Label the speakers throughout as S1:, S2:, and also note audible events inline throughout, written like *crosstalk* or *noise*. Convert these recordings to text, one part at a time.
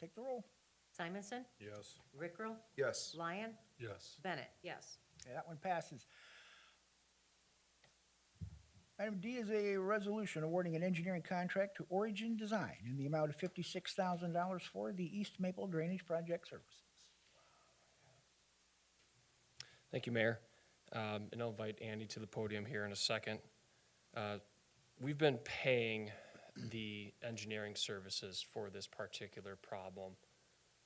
S1: Take the roll.
S2: Simonson,
S3: Yes.
S2: Rickrell,
S4: Yes.
S2: Lyon,
S3: Yes.
S2: Bennett, yes.
S1: Okay, that one passes. Item D is a resolution awarding an engineering contract to Origin Design in the amount of fifty-six thousand dollars for the East Maple Drainage Project Services.
S5: Thank you, Mayor. Um, And I'll invite Andy to the podium here in a second. Uh, We've been paying the engineering services for this particular problem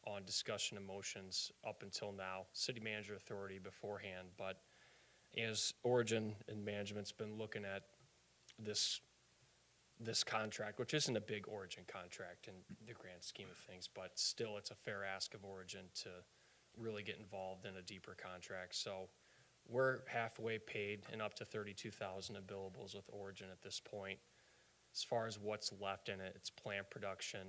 S5: on discussion and motions up until now, city manager authority beforehand. But as Origin and management's been looking at this, this contract, which isn't a big Origin contract in the grand scheme of things, but still, it's a fair ask of Origin to really get involved in a deeper contract. So we're halfway paid and up to thirty-two thousand in billables with Origin at this point. As far as what's left in it, it's plant production,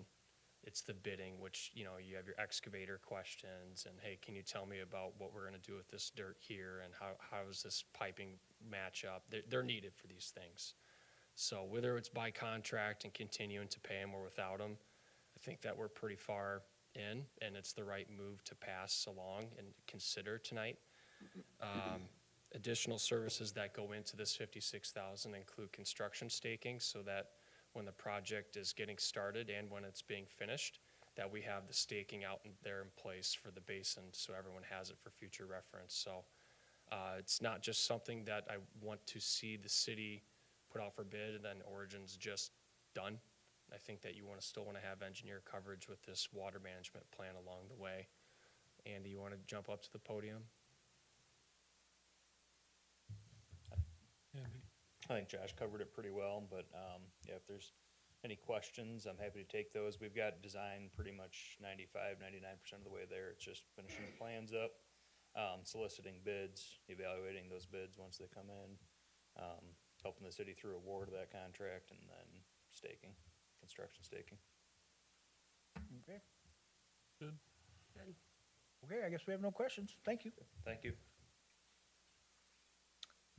S5: it's the bidding, which, you know, you have your excavator questions and hey, can you tell me about what we're gonna do with this dirt here and how, how does this piping match up? They're, they're needed for these things. So whether it's by contract and continuing to pay them or without them, I think that we're pretty far in, and it's the right move to pass along and consider tonight. Um, Additional services that go into this fifty-six thousand include construction staking, so that when the project is getting started and when it's being finished, that we have the staking out in- there in place for the basin, so everyone has it for future reference. So uh, it's not just something that I want to see the city put out for bid and then Origin's just done. I think that you want to still want to have engineer coverage with this water management plan along the way. Andy, you want to jump up to the podium?
S6: I think Josh covered it pretty well, but um, yeah, if there's any questions, I'm happy to take those. We've got design pretty much 95, 99% of the way there. It's just finishing the plans up, um, soliciting bids, evaluating those bids once they come in, um, helping the city through award of that contract, and then staking, construction staking.
S1: Okay,
S3: Good.
S1: okay, I guess we have no questions. Thank you.
S6: Thank you.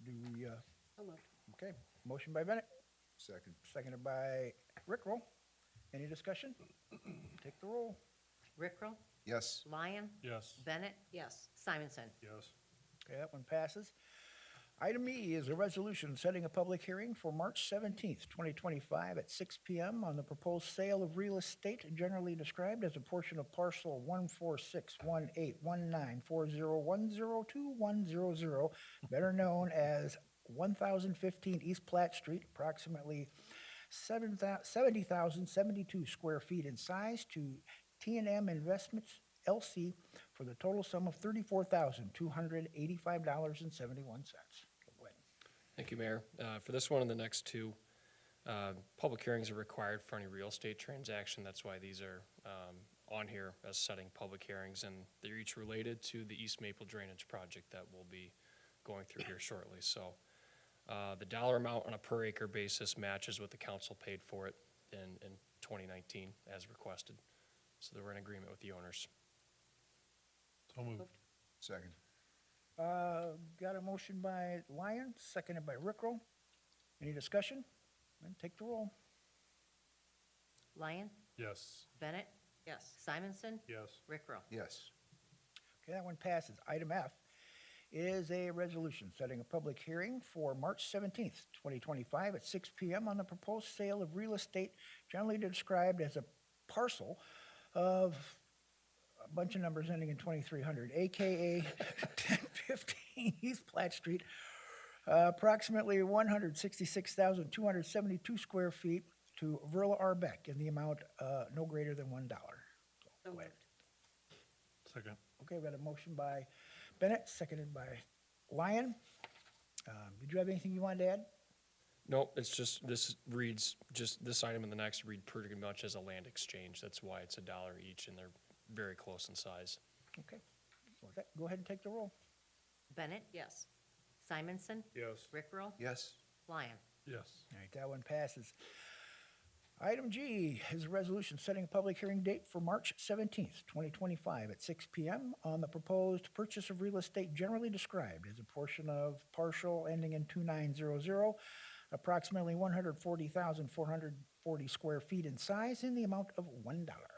S1: Do we, uh,
S2: So moved.
S1: okay, motion by Bennett,
S4: Second.
S1: seconded by Rickrell. Any discussion? Take the roll.
S2: Rickrell,
S4: Yes.
S2: Lyon,
S3: Yes.
S2: Bennett, yes. Simonson,
S3: Yes.
S1: Okay, that one passes. Item E is a resolution setting a public hearing for March seventeenth, twenty twenty-five at six P M on the proposed sale of real estate generally described as a portion of parcel one four six one eight one nine four zero one zero two one zero zero, better known as one thousand fifteen East Platt Street, approximately seven thou- 70,072 square feet in size to t and m Investments LC for the total sum of $34,285.71. Go ahead.
S5: Thank you, Mayor. Uh, For this one and the next two, uh, public hearings are required for any real estate transaction. That's why these are um, on here as setting public hearings, and they're each related to the East Maple Drainage Project that we'll be going through here shortly. So uh, the dollar amount on a per acre basis matches what the council paid for it in in 2019 as requested. So they were in agreement with the owners.
S3: So moved.
S4: Second.
S1: Uh, Got a motion by Lyon, seconded by Rickrell. Any discussion? Then take the roll.
S2: Lyon,
S3: Yes.
S2: Bennett, yes. Simonson,
S3: Yes.
S2: Rickrell.
S4: Yes.
S1: Okay, that one passes. Item F is a resolution setting a public hearing for March 17th, 2025 at 6 PM on the proposed sale of real estate generally described as a parcel of a bunch of numbers ending in 2300, AKA *laughs* 1015 East Platt Street, uh, approximately 166,272 square feet to Verla Arbeck in the amount uh, no greater than $1.
S2: So moved.
S3: Second.
S1: Okay, we got a motion by Bennett, seconded by Lyon. Um, Did you have anything you wanted to add?
S5: Nope, it's just, this reads, just this item and the next read pretty much as a land exchange. That's why it's a dollar each and they're very close in size.
S1: Okay, Well, that- go ahead and take the roll.
S2: Bennett, yes. Simonson,
S3: Yes.
S2: Rickrell,
S4: Yes.
S2: Lyon.
S3: Yes.
S1: All right, that one passes. Item G is a resolution setting a public hearing date for March 17th, 2025 at 6 PM on the proposed purchase of real estate generally described as a portion of partial ending in 2900, approximately 140,440 square feet in size in the amount of $1.